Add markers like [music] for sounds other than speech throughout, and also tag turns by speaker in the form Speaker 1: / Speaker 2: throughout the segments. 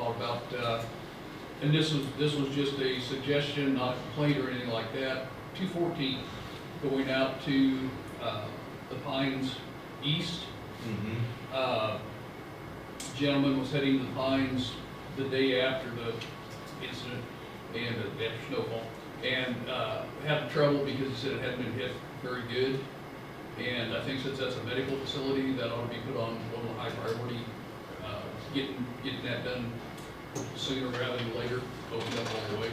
Speaker 1: about, uh, and this was, this was just a suggestion, not a complaint or anything like that. Two fourteen, going out to, uh, the Pines East.
Speaker 2: Mm-hmm.
Speaker 1: Uh, Gentleman was heading to the Pines the day after the incident and the after snowfall. And, uh, had trouble because he said it hadn't been hit very good. And I think since that's a medical facility, that ought to be put on a little high priority, uh, getting, getting that done sooner rather than later, open up all the way.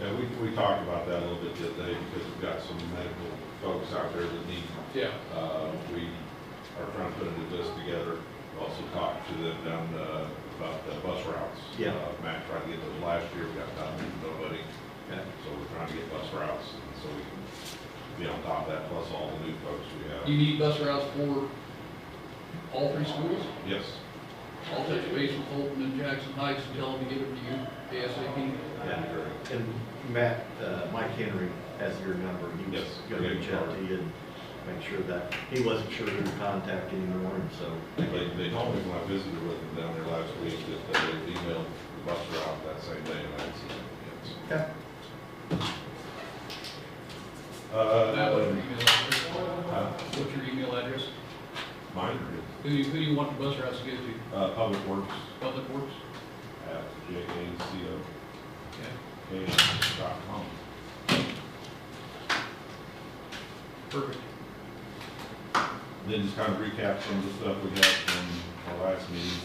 Speaker 2: Yeah, we, we talked about that a little bit the other day because we've got some medical folks out there that need,
Speaker 1: Yeah,
Speaker 2: uh, we are trying to put a new list together. Also talked to them down, uh, about the bus routes.
Speaker 3: Yeah.
Speaker 2: Uh, Matt tried to get those last year, we got nothing, nobody.
Speaker 3: Yeah.
Speaker 2: So we're trying to get bus routes and so we can be on top of that, plus all the new folks we
Speaker 1: you
Speaker 2: have.
Speaker 1: need bus routes for all three schools?
Speaker 2: Yes,
Speaker 1: I'll touch base with Holton and Jackson Heights and tell them to give it to you ASAP.
Speaker 2: that'd be great.
Speaker 3: And Matt, uh, Mike Henry has your number, he was
Speaker 2: Yes.
Speaker 3: gonna reach out to you and make sure that, he wasn't sure who to contact anymore, and so.
Speaker 2: They, they told me when I visited with them down there last week that they had emailed the bus route that same day and I hadn't seen it
Speaker 3: Okay.
Speaker 2: yet. Uh,
Speaker 1: Matt, what's your email address?
Speaker 2: uh,
Speaker 1: What's your email address?
Speaker 2: Mine,
Speaker 1: Who do you, who do you want the bus routes to go to?
Speaker 2: uh, Public Works
Speaker 1: Public Works?
Speaker 2: at jaco
Speaker 1: Okay.
Speaker 2: dot com.
Speaker 1: Perfect.
Speaker 2: Then just kind of recap some of the stuff we had from our last meeting.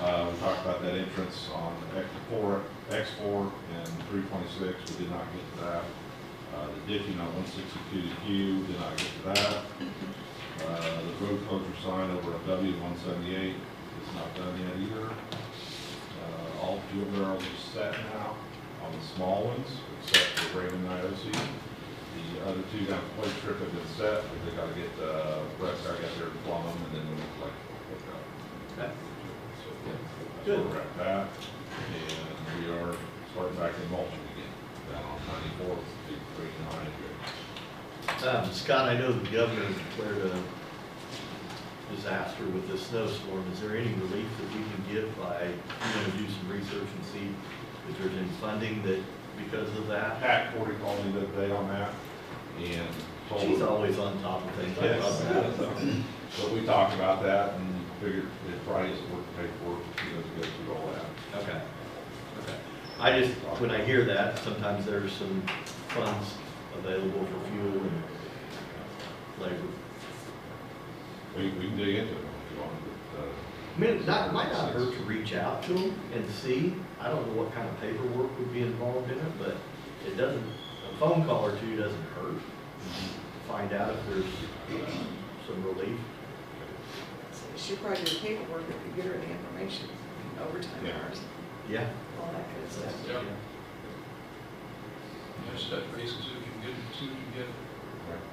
Speaker 2: Uh, we talked about that entrance on X four, X four and three twenty-six, we did not get to that. Uh, the ditching on one sixty-two Q, did not get to that. Uh, the road closure sign over at W one seventy-eight is not done yet either. Uh, all fuel barrels are set now on the small ones, except for Raymond IOC. The other two down the plate trip have been set, but they gotta get, uh, Brett's gotta get their plumb, and then we'll like, hook up.
Speaker 3: Okay.
Speaker 2: So, that's where we're at that, and we are starting back in mulching again, down on ninety-fourth, big three nine here.
Speaker 3: Um, Scott, I know the governor declared a disaster with this snowstorm. Is there any relief that we can get by, you know, do some research and see if there's any funding that, because of that?
Speaker 2: Pat Cordy called me the other day on that, and told.
Speaker 3: She's always on top of things. I love that.
Speaker 2: Yes. [laughs] But we talked about that and figured it probably isn't worth the paperwork, you know, to go through all that.
Speaker 3: Okay, okay. I just, when I hear that, sometimes there's some funds available for fuel and labor.
Speaker 2: We, we can dig into it if you want, but, uh,
Speaker 3: I mean, it not, might not hurt to reach out to them and see. I don't know what kind of paperwork would be involved in it, but it doesn't, a phone call or two doesn't hurt.
Speaker 2: uh,
Speaker 3: Find out if there's uh, some relief.
Speaker 4: She probably did the paperwork, if you get her the information, overtime
Speaker 2: Yeah.
Speaker 4: hours,
Speaker 3: Yeah.
Speaker 4: all that good stuff.
Speaker 1: Yeah. Just touch base and see what you can get, see what you can get.
Speaker 2: right.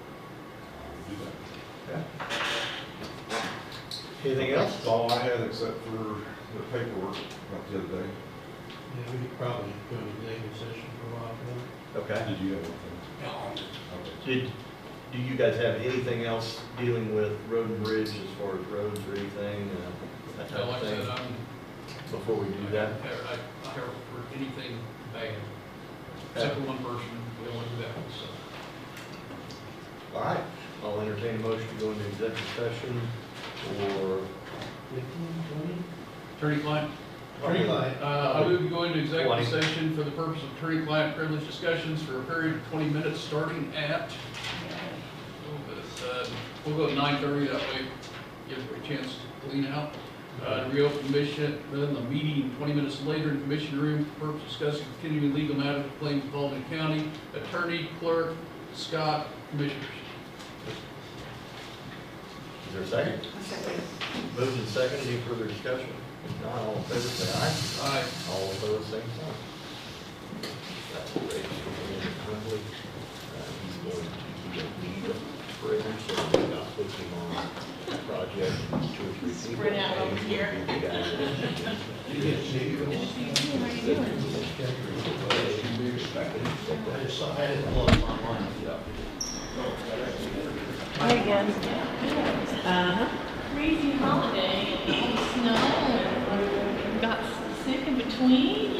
Speaker 2: We'll do that.
Speaker 3: Yeah. Anything else?
Speaker 2: That's all I had except for the paperwork about the other day.
Speaker 5: Yeah, we could probably go to executive session for a while, but
Speaker 3: Okay.
Speaker 2: Did you have anything? Okay.
Speaker 3: Did, do you guys have anything else dealing with road and bridge as far as roads or anything, uh, that type
Speaker 1: Now,
Speaker 3: of
Speaker 1: like I said, uh,
Speaker 3: thing?
Speaker 1: I'm,
Speaker 3: Before we do that?
Speaker 1: I, I, I don't for anything bad, except for one person, we don't want to do that, one, so.
Speaker 3: All right, I'll entertain a motion to go into executive session or.
Speaker 1: Attorney-client?
Speaker 5: Attorney client.
Speaker 1: Uh, I move to go into
Speaker 3: Twenty.
Speaker 1: executive session for the purpose of attorney-client privilege discussions for a period of twenty minutes, starting at, uh, we'll go nine thirty, that way, give everybody a chance to clean out. Uh, to reopen mission, then the meeting twenty minutes later in the commission room, for purpose of discussing continuing legal matters of claims involved in county, attorney, clerk, Scott, commissioners.
Speaker 3: Is there a second?
Speaker 4: Okay.
Speaker 3: Moved and second, any further discussion? If not, all in favor, say aye.
Speaker 1: Aye.
Speaker 3: All opposed, same sign. That's great. He's going to be a lead operator, so we're not pushing on project two or three people.
Speaker 6: Spread out over here.
Speaker 3: I just saw, I didn't pull it online.
Speaker 6: Hi again. Uh-huh. Crazy holiday, and all the snow, and got sick in between between